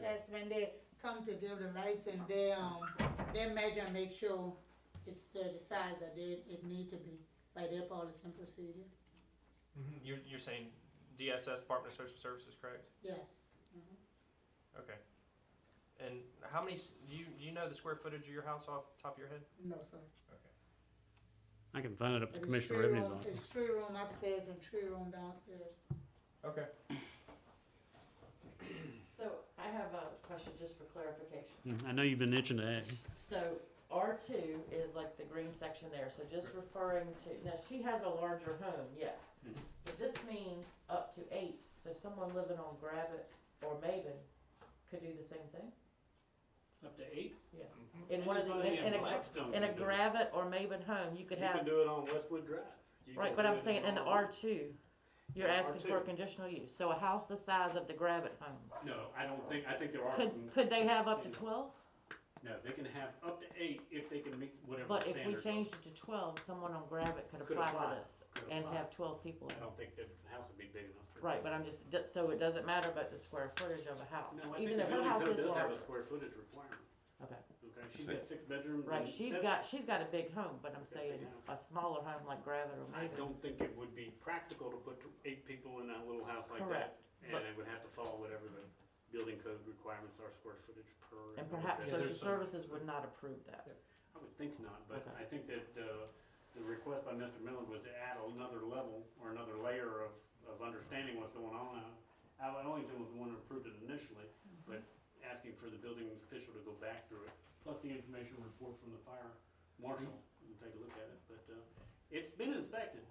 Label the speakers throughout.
Speaker 1: that's when they come to give the license, they, um, they measure, and make sure it's the the size that they, it need to be by their policy and procedure,
Speaker 2: Mhm. You're, you're saying DSS, Department of Social Services, correct?
Speaker 1: yes. Mhm.
Speaker 2: Okay. And how many, s- do you, do you know the square footage of your house off the top of your head?
Speaker 1: No, sir.
Speaker 2: Okay.
Speaker 3: I can find it up to
Speaker 1: But it's
Speaker 3: Commissioner
Speaker 1: three
Speaker 3: Revenue's
Speaker 1: room-
Speaker 3: office.
Speaker 1: It's three room upstairs and three room downstairs.
Speaker 2: Okay.
Speaker 4: So I have a question just for clarification.
Speaker 3: Mm, I know you've been itching to ask.
Speaker 4: So R two is like the green section there, so just referring to, now she has a larger home, yes.
Speaker 5: Mm-hmm.
Speaker 4: But this means up to eight, so someone living on Gravit or Maven could do the same thing?
Speaker 5: Up to eight?
Speaker 2: Mm-hmm.
Speaker 4: In one of the,
Speaker 5: Anybody
Speaker 4: in
Speaker 5: in
Speaker 4: a,
Speaker 5: Blackstone
Speaker 4: in a
Speaker 5: can do it.
Speaker 4: Gravit or Maven home, you
Speaker 5: You
Speaker 4: could
Speaker 5: can
Speaker 4: have,
Speaker 5: do it on Westwood Drive. You
Speaker 4: right,
Speaker 5: can
Speaker 4: but
Speaker 5: do
Speaker 4: I'm
Speaker 5: it
Speaker 4: saying in
Speaker 5: all-
Speaker 4: R two, you're
Speaker 5: Yeah,
Speaker 4: asking for a
Speaker 5: R2.
Speaker 4: conditional use, so a house the size of the Gravit home.
Speaker 5: No, I don't think, I think there are. some-
Speaker 4: Could, could they have up to twelve?
Speaker 5: No, they can have up to eight if they can meet whatever
Speaker 4: But if we
Speaker 5: standard.
Speaker 4: changed it to twelve, someone on Gravit could
Speaker 5: Could
Speaker 4: apply
Speaker 5: apply.
Speaker 4: for this
Speaker 5: Could
Speaker 4: and
Speaker 5: apply.
Speaker 4: have twelve people.
Speaker 5: I
Speaker 4: in it.
Speaker 5: don't think the house would be big enough. for-
Speaker 4: Right, but I'm just, d- so it doesn't matter about the square footage of a house,
Speaker 5: No, I think
Speaker 4: even
Speaker 5: the
Speaker 4: if her
Speaker 5: building
Speaker 4: house
Speaker 5: code
Speaker 4: is
Speaker 5: does have a
Speaker 4: larger.
Speaker 5: square footage requirement.
Speaker 4: Okay,
Speaker 5: Okay, she's got six bedrooms.
Speaker 4: right,
Speaker 5: and
Speaker 4: she's
Speaker 5: that-
Speaker 4: got, she's got a big home, but I'm
Speaker 5: Okay,
Speaker 4: saying
Speaker 5: yeah.
Speaker 4: a smaller home like Gravit or
Speaker 5: I
Speaker 4: maybe.
Speaker 5: don't think it would be practical to put eight people in a little house like that.
Speaker 4: Correct,
Speaker 5: And
Speaker 4: but-
Speaker 5: it would have to follow whatever the building code requirements are, square footage per.
Speaker 4: And perhaps
Speaker 2: Yeah,
Speaker 4: social
Speaker 2: there's some-
Speaker 4: services would not approve that.
Speaker 5: I would think not, but
Speaker 4: Okay.
Speaker 5: I think that uh, the request by Mr. Miller was to add another level or another layer of, of understanding what's going on. Uh, Al Ellington was the one who approved it initially, but asking for the building official to go back through it, plus the information report from the fire marshal, and take a look at it, but uh, it's been inspected.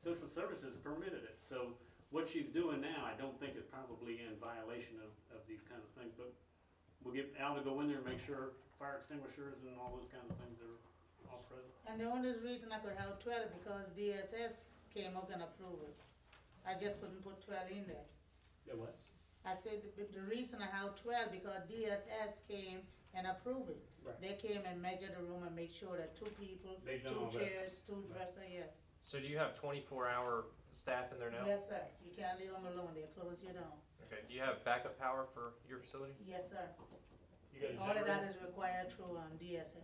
Speaker 5: Social services permitted it, so what she's doing now, I don't think is probably in violation of, of these kinds of things, but We'll get Al to go in there and make sure fire extinguishers and all those kinds of things are all present.
Speaker 1: And the only reason I could have twelve, because DSS came up and approved it. I just couldn't put twelve in there.
Speaker 5: It was.
Speaker 1: I said, the- the reason I have twelve, because DSS came and approved it.
Speaker 5: Right.
Speaker 1: They came and measured the room and make sure that two people,
Speaker 5: They've done
Speaker 1: two
Speaker 5: all that.
Speaker 1: chairs, two dresser, yes.
Speaker 2: So do you have twenty-four hour staff in there now?
Speaker 1: Yes, sir, you can't leave them alone, they close you down.
Speaker 2: Okay, do you have backup power for your facility?
Speaker 1: Yes, sir.
Speaker 5: You got a
Speaker 1: All of that
Speaker 5: generator?
Speaker 1: is required through, um, DSS.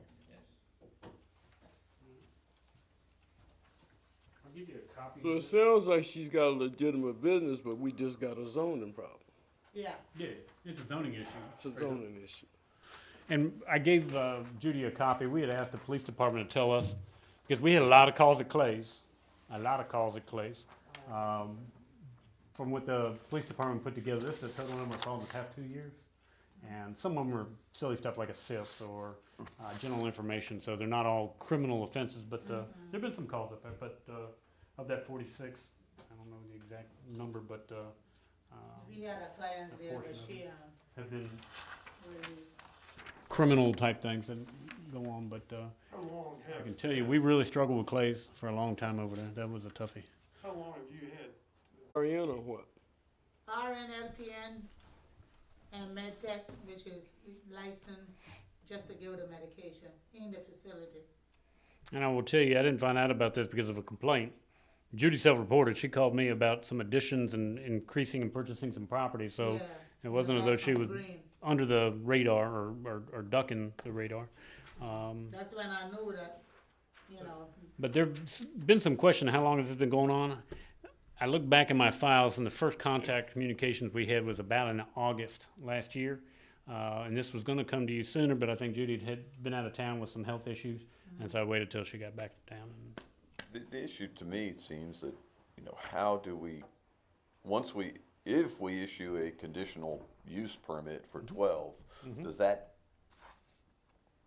Speaker 5: I'll give you a copy.
Speaker 6: So it sounds like she's got a legitimate business, but we just got a zoning problem.
Speaker 1: Yeah,
Speaker 5: Yeah, it's a zoning issue.
Speaker 6: It's a zoning issue.
Speaker 5: And I gave uh, Judy a copy. We had asked the police department to tell us, because we had a lot of calls at Clay's, a lot of calls at Clay's. Um, From what the police department put together, this is the total number of calls in the past two years. And some of them are silly stuff like assists or uh, general information, so they're not all criminal offenses, but uh, there've been some calls up there, but uh, of that forty-six, I don't know the exact number, but uh, um,
Speaker 1: we had a client there, but
Speaker 5: portion of
Speaker 1: she, um,
Speaker 5: have been
Speaker 1: was,
Speaker 5: criminal type things that go on, but uh,
Speaker 7: How long
Speaker 5: I
Speaker 7: have,
Speaker 5: can tell you, we really struggled with clays for a long time over there. That was a toughie.
Speaker 7: how long have you had
Speaker 6: RN or what?
Speaker 1: RN, LPN, and MedTech, which is licensed just to give the medication in the facility.
Speaker 5: And I will tell you, I didn't find out about this because of a complaint. Judy self-reported. She called me about some additions and increasing and purchasing some property. So
Speaker 1: Yeah.
Speaker 5: it wasn't as though she
Speaker 1: From
Speaker 5: was
Speaker 1: Green.
Speaker 5: under the radar or, or, or ducking the radar. Um,
Speaker 1: That's when I knew that, you know,
Speaker 5: But there's been some question, how long has this been going on? I look back in my files, and the first contact communications we had was about in August last year. Uh, and this was going to come to you sooner, but I think Judy had been out of town with some health issues, and so I waited till she got back to town. And
Speaker 8: The, the issue to me it seems that, you know, how do we, once we, if we issue a conditional use permit for 12, does that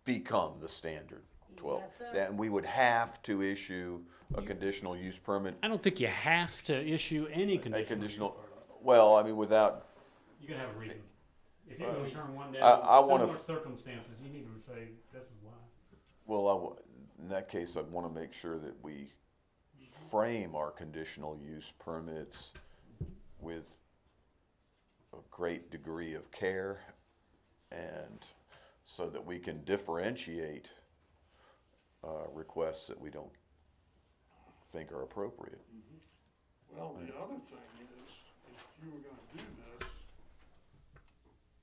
Speaker 8: become the standard 12?
Speaker 1: Yes, sir.
Speaker 8: Then we would have to issue a conditional use permit,
Speaker 5: I don't think you have to issue any
Speaker 8: a
Speaker 5: conditional.
Speaker 8: conditional, well, I mean, without,
Speaker 5: You can have a reason. If you're going to turn one down,
Speaker 8: I- Uh, I wanna-
Speaker 5: similar circumstances, you need to say this is why.
Speaker 8: well, I w in that case, I'd want to make sure that we frame our conditional use permits with a great degree of care and so that we can differentiate uh, requests that we don't think are appropriate.
Speaker 7: Well, the other thing is, if you were gonna do this,